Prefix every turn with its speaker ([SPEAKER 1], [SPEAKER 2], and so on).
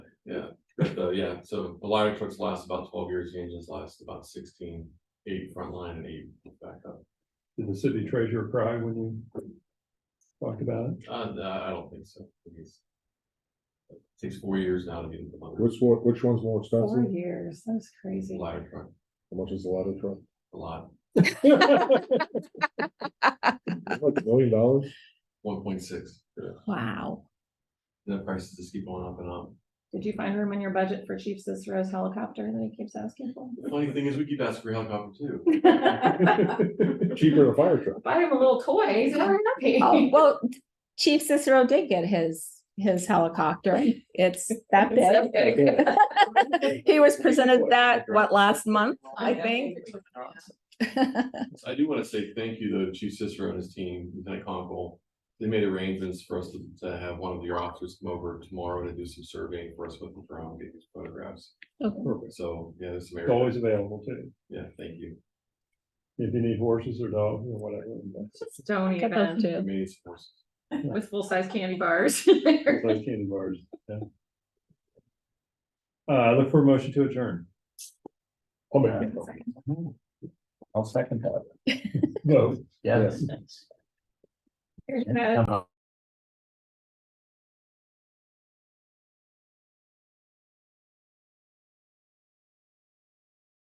[SPEAKER 1] But uh, yeah, so a lot of trucks last about twelve years, the engines last about 16, eight front line and eight backup.
[SPEAKER 2] Did the city treasurer cry when you talked about it?
[SPEAKER 1] Uh, no, I don't think so. I think it's- it Takes four years now to get into the
[SPEAKER 3] Which one, which one's more
[SPEAKER 4] Four
[SPEAKER 3] expensive?
[SPEAKER 4] years, that's crazy.
[SPEAKER 1] ladder truck,
[SPEAKER 3] How much is the ladder truck?
[SPEAKER 1] a lot,
[SPEAKER 3] Like a million dollars?
[SPEAKER 1] one point six.
[SPEAKER 4] Wow.
[SPEAKER 1] The prices just keep going up and up.
[SPEAKER 4] Did you find room in your budget for Chief Cicero's helicopter that he keeps asking for?
[SPEAKER 1] The Funny thing is, we keep asking for a helicopter too.
[SPEAKER 3] Cheaper than a fire truck.
[SPEAKER 4] Buy him a little toy, he's very
[SPEAKER 5] Oh,
[SPEAKER 4] happy.
[SPEAKER 5] well, Chief Cicero did get his, his helicopter. It's that
[SPEAKER 4] It's so
[SPEAKER 5] big. He was presented that, what, last month, I
[SPEAKER 4] Yeah.
[SPEAKER 5] think?
[SPEAKER 1] So I do want to say thank you though to Chief Cicero and his team, Lieutenant Conkle. They made arrangements for us to, to have one of your officers come over tomorrow to do some surveying for us with the drone, get these photographs.
[SPEAKER 2] Perfect.
[SPEAKER 1] So, yeah, there's some
[SPEAKER 2] It's
[SPEAKER 1] area.
[SPEAKER 2] always available too.
[SPEAKER 1] Yeah, thank you.
[SPEAKER 2] If you need horses or dogs or whatever. that's-
[SPEAKER 4] Stony
[SPEAKER 5] Got those
[SPEAKER 4] event
[SPEAKER 5] too.
[SPEAKER 1] Many supports.
[SPEAKER 4] with full-size candy bars.
[SPEAKER 2] that's like candy bars, yeah. Uh, look for a motion to adjourn.
[SPEAKER 3] I'll make that.
[SPEAKER 6] I'll second that.
[SPEAKER 2] No.
[SPEAKER 6] Yes.
[SPEAKER 4] Here's that.
[SPEAKER 6] Oh,